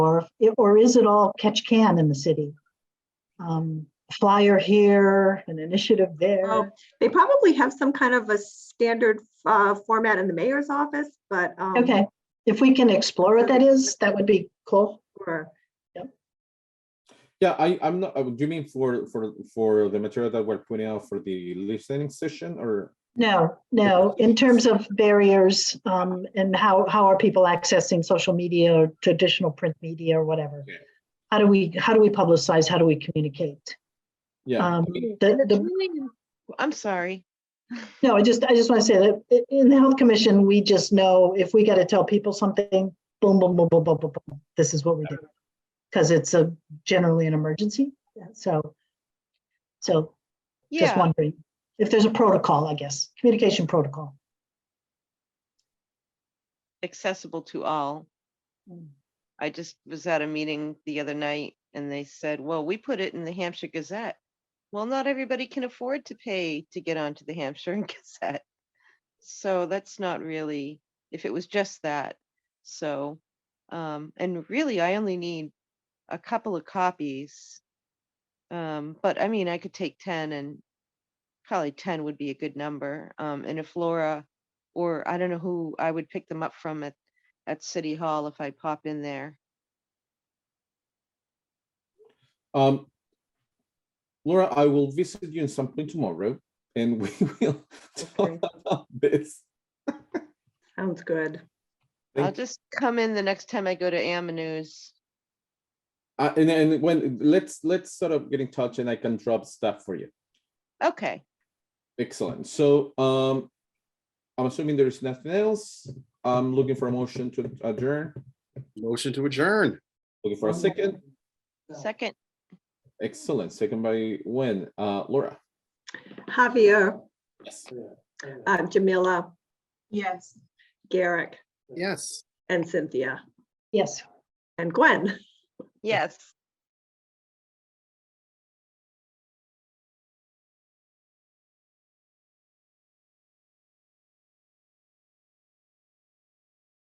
or, or is it all catch can in the city? Um, Flyer here, an initiative Oh, there. They probably have some kind of a standard uh, format in the mayor's office, but. um, Okay, if we can explore what that is, that would be cool. for- Yeah, I, I'm not, uh, do you mean for, for, for the material that we're putting out for the listening session or? No, no, in terms of barriers, um, and how, how are people accessing social media or traditional print media or whatever? Okay. How do we, how do we publicize? How do we communicate? Yeah, Um, mean- the, And it's the really im- I'm sorry. No, I just, I just want to say that i- in the health commission, we just know if we got to tell people something, boom, boom, boom, boom, boom, boom, boom, this is what we do. Because it's a generally an emergency, so. So just Yeah, wondering if there's a protocol, I guess, communication protocol. accessible to all. I just was at a meeting the other night and they said, well, we put it in the Hampshire Gazette. Well, not everybody can afford to pay to get onto the Hampshire Gazette. So that's not really, if it was just that, so, um, and really, I only need a couple of copies. Um, but I mean, I could take ten and probably ten would be a good number. Um, and if Laura, or I don't know who I would pick them up from at, at City Hall if I pop in there. um, Laura, I will visit you in something tomorrow and we will Okay. talk about this. Sounds good. I'll Thank- just come in the next time I go to Ammanus. Uh, and then when, let's, let's sort of get in touch and I can drop stuff for you. Okay, Excellent. So, um, I'm assuming there's nothing else. I'm looking for a motion to adjourn, Motion to adjourn. looking for a second. second, Excellent. Second by when, uh, Laura? Javier, Yes. uh, Jamila, Yes. Garrick, Yes. and Cynthia, Yes. and Gwen. yes.